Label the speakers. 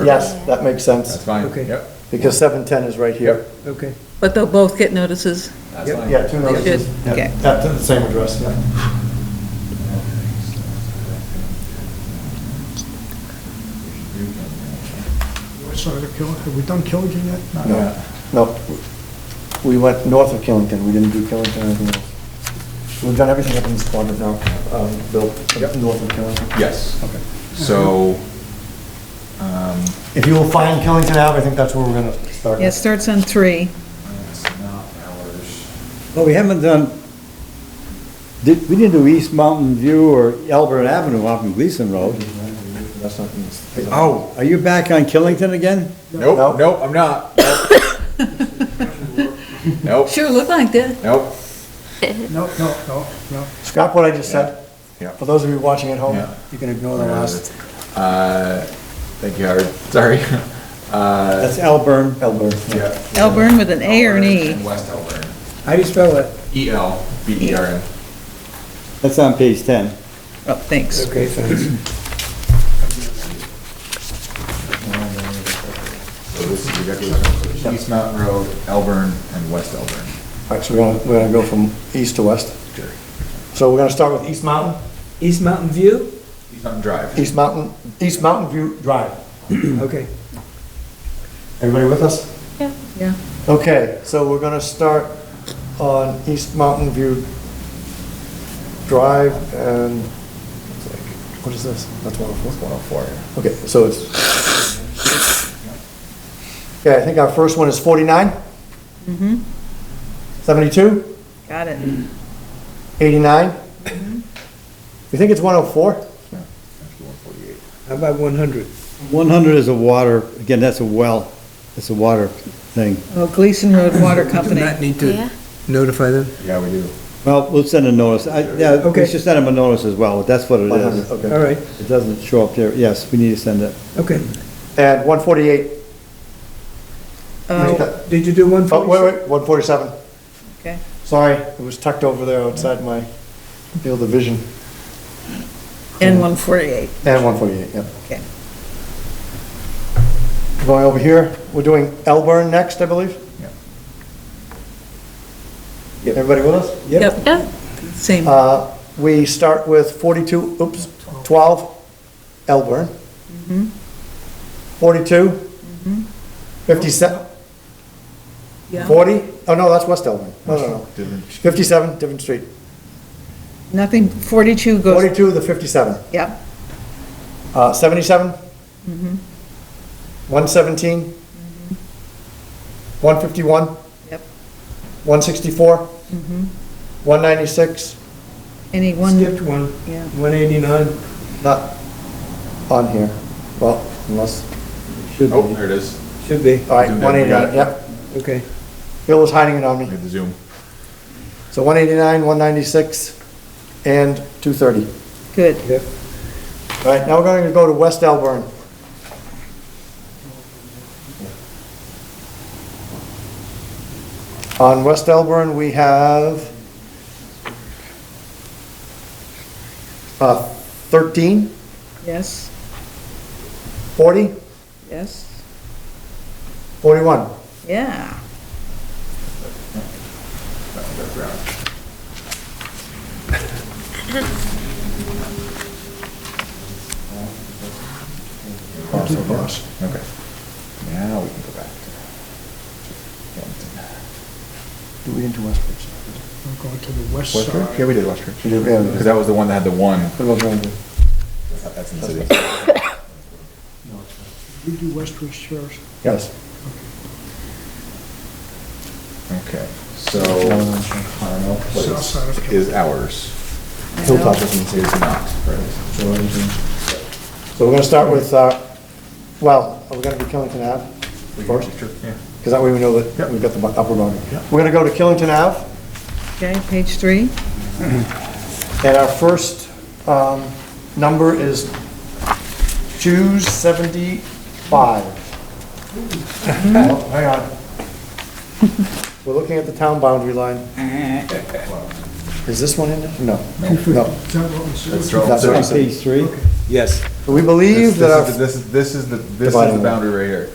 Speaker 1: Yes, that makes
Speaker 2: That's
Speaker 1: sense,
Speaker 2: fine.
Speaker 3: Okay.
Speaker 2: Yep,
Speaker 1: because 710 is right here.
Speaker 2: Yep.
Speaker 3: Okay,
Speaker 4: But they'll both get notices?
Speaker 2: that's
Speaker 3: Yep.
Speaker 2: fine.
Speaker 1: Yeah, two notices.
Speaker 4: should,
Speaker 1: Yeah,
Speaker 4: okay.
Speaker 1: At the same address, yeah.
Speaker 5: Sorry, the Kill- have we done Killington yet? Not yet.
Speaker 1: No, no, we went north of Killington, we didn't do Killington or anything else. We've done everything up in this quadrant now, um, Bill,
Speaker 2: Yep.
Speaker 1: north of Killington.
Speaker 2: Yes. Okay. So, um,
Speaker 1: If you will find Killington Ave, I think that's where we're gonna start.
Speaker 4: Yeah, it starts on three.
Speaker 2: it's not ours.
Speaker 6: Well, we haven't done, did, we didn't do East Mountain View or Albert Avenue off of Gleason Road.
Speaker 1: That's not,
Speaker 6: Oh, are you back on Killington again?
Speaker 1: No.
Speaker 2: Nope, nope, I'm not. Nope,
Speaker 4: Sure, look like that.
Speaker 2: nope,
Speaker 5: No, no, no, no.
Speaker 1: scrap what I just said,
Speaker 2: yeah,
Speaker 1: for those of you watching at home.
Speaker 2: yeah.
Speaker 6: You can ignore the last.
Speaker 2: Uh, thank you, Howard, sorry. Uh,
Speaker 6: That's Elburn.
Speaker 1: Elbert.
Speaker 2: yeah.
Speaker 4: Elburn with an A or an E.
Speaker 2: And West Elburn,
Speaker 3: how do you spell that?
Speaker 2: E L B E R N.
Speaker 6: That's on page ten.
Speaker 4: Oh, thanks.
Speaker 3: Okay, thanks.
Speaker 2: So this is exactly, East Mountain Road, Elburn, and West Elburn.
Speaker 1: All right, so we're gonna, we're gonna go from east to west.
Speaker 2: Sure.
Speaker 1: So we're gonna start with East Mountain,
Speaker 3: East Mountain View?
Speaker 2: East Mountain Drive.
Speaker 1: East Mountain, East Mountain View Drive.
Speaker 3: Okay.
Speaker 1: Everybody with us?
Speaker 4: Yeah.
Speaker 1: Okay, so we're gonna start on East Mountain View Drive and, what is this? That's 104?
Speaker 2: One oh four.
Speaker 1: Okay, so it's, okay, I think our first one is 49? Mm-hmm. 72?
Speaker 4: Got it.
Speaker 1: 89? You think it's 104?
Speaker 3: How about one hundred?
Speaker 6: One hundred is a water, again, that's a well, that's a water thing.
Speaker 4: Well, Oh, Gleason Road Water Company.
Speaker 3: Not need
Speaker 7: Yeah.
Speaker 3: to notify them?
Speaker 2: Yeah, we do.
Speaker 6: Well, we'll send a notice. I, yeah, we
Speaker 3: Okay.
Speaker 6: should send them a notice as well, that's what it
Speaker 1: 100,
Speaker 6: is.
Speaker 1: okay.
Speaker 3: All right,
Speaker 6: It doesn't show up there. Yes, we need to send it.
Speaker 3: okay.
Speaker 1: And 148,
Speaker 4: Oh,
Speaker 1: oh,
Speaker 3: Did you do one
Speaker 1: wait,
Speaker 3: forty?
Speaker 1: wait, 147.
Speaker 4: okay.
Speaker 1: Sorry, it was tucked over there outside my field of vision.
Speaker 4: And 148.
Speaker 1: And 148, yep.
Speaker 4: Okay.
Speaker 1: Going over here, we're doing Elburn next, I believe?
Speaker 2: Yep.
Speaker 1: Yep. Everybody with us?
Speaker 4: Yep.
Speaker 7: Yep.
Speaker 4: Same.
Speaker 1: Uh, We start with 42, oops, 12, Elburn. 42, 57,
Speaker 4: Yeah.
Speaker 1: 40, oh no, that's West Elburn. No, no, no.
Speaker 2: Different
Speaker 1: 57, different street.
Speaker 4: Nothing, 42 goes,
Speaker 1: 42 to 57.
Speaker 4: yep.
Speaker 1: Uh, 77? 117? 151?
Speaker 4: Yep.
Speaker 1: 164? 196?
Speaker 4: Any one,
Speaker 3: Skipped one,
Speaker 4: yeah.
Speaker 3: one eighty-nine.
Speaker 1: Not on here. Well, unless,
Speaker 6: Should
Speaker 2: Oh,
Speaker 6: be.
Speaker 2: there it is.
Speaker 3: Should be,
Speaker 1: all right,
Speaker 2: Zoomed in, we
Speaker 1: 189,
Speaker 2: got it.
Speaker 1: yep.
Speaker 3: okay.
Speaker 1: Bill was hiding it on
Speaker 2: We
Speaker 1: me.
Speaker 2: have the Zoom.
Speaker 1: So 189, 196, and 230.
Speaker 4: Good.
Speaker 3: Yep.
Speaker 1: All right, now we're going to go to West Elburn. On West Elburn, we have uh, 13,
Speaker 4: Yes,
Speaker 1: 40,
Speaker 4: yes.
Speaker 1: 41.
Speaker 4: Yeah.
Speaker 2: Okay. Now we can go back to.
Speaker 1: Did we into Westbridge?
Speaker 5: We're going to the west
Speaker 2: West
Speaker 5: side.
Speaker 2: Ridge? Yeah, we did West Ridge.
Speaker 1: We did, yeah, we did.
Speaker 2: Because that was the one that had the one.
Speaker 1: What about Brandon?
Speaker 2: That's in the city.
Speaker 5: We do West Ridge first.
Speaker 1: Yes.
Speaker 2: Okay, so Carmel
Speaker 5: South side of
Speaker 2: Place
Speaker 5: Carmel.
Speaker 2: is ours.
Speaker 1: Hilltop
Speaker 2: This one is not. right?
Speaker 1: So we're going to start with, uh, well, are we going to be Killington Ave first?
Speaker 2: Yeah.
Speaker 1: Because that way we know that we've got the upper boundary. We're going to go to Killington Ave.
Speaker 4: Okay, page three.
Speaker 1: And our first um, number is 275. Oh, Hang on. We're looking at the town boundary line. Is this one in there? No, no.
Speaker 5: Is that what we said?
Speaker 2: That's right.
Speaker 1: That's
Speaker 2: So
Speaker 1: right.
Speaker 2: it's-
Speaker 6: Page three?
Speaker 3: Yes.
Speaker 1: So we believe
Speaker 2: This-
Speaker 1: that our
Speaker 2: This is, the- this is the, this is the
Speaker 1: Dividing line.
Speaker 2: boundary right here.